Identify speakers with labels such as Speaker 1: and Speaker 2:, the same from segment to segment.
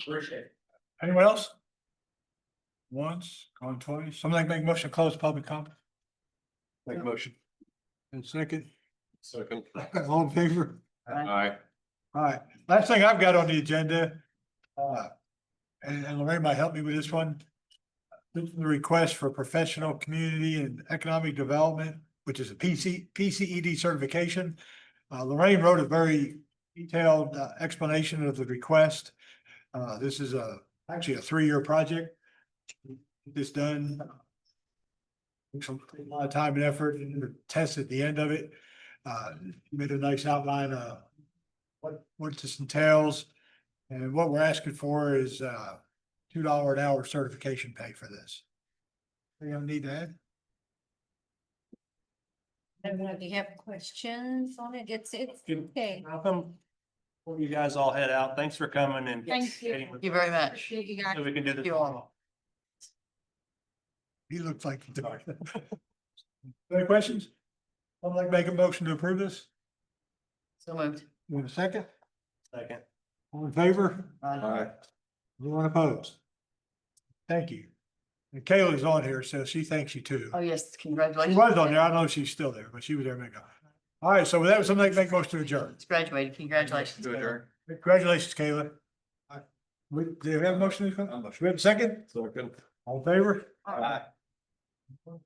Speaker 1: Appreciate it.
Speaker 2: Anyone else? Once, gone twice, something like make motion to close public comment?
Speaker 3: Make
Speaker 2: motion. And second,
Speaker 3: Second.
Speaker 2: all in favor?
Speaker 3: Aye.
Speaker 2: All right, last thing I've got on the agenda. uh, And and Lorraine might help me with this one. This is the request for professional community and economic development, which is a PC, PCED E certification. Uh, Lorraine wrote a very detailed uh, explanation of the request. Uh, this is a, actually a three-year project. Get This done. Took some- a lot of time and effort and the test at the end of it. Uh, made a nice outline, uh, what, what this entails. And what we're asking for is, uh, two dollar an hour certification pay for this. You don't need that?
Speaker 4: I don't know, do you have questions on it? It's, it's,
Speaker 1: Good.
Speaker 4: okay.
Speaker 1: Welcome. Well, you guys all head out. Thanks for coming and.
Speaker 4: Thank you.
Speaker 1: participating with-
Speaker 5: Thank you very much.
Speaker 4: Appreciate you guys.
Speaker 1: So we can do this.
Speaker 5: You all.
Speaker 2: He looks like. Any questions? I'd like to make a motion to approve this.
Speaker 5: So moved.
Speaker 2: Want a second?
Speaker 1: Second.
Speaker 2: All in favor?
Speaker 3: Aye.
Speaker 2: Anyone opposed? Thank you. And Kayla's on here, so she thanks you too.
Speaker 5: Oh, yes,
Speaker 2: She
Speaker 5: congratulations.
Speaker 2: was on there. I don't know if she's still there, but she was there. a minute ago. All right, so with that, somebody make a motion to adjourn.
Speaker 5: It's graduated. Congratulations.
Speaker 3: Good,
Speaker 5: Kayla.
Speaker 3: Eric.
Speaker 2: Congratulations, Kayla. We, do you have a motion? Do we have a second?
Speaker 3: Second.
Speaker 2: All in favor?
Speaker 3: Aye.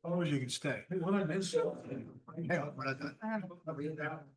Speaker 2: Opposed, you can stay. Hang on, we're not done.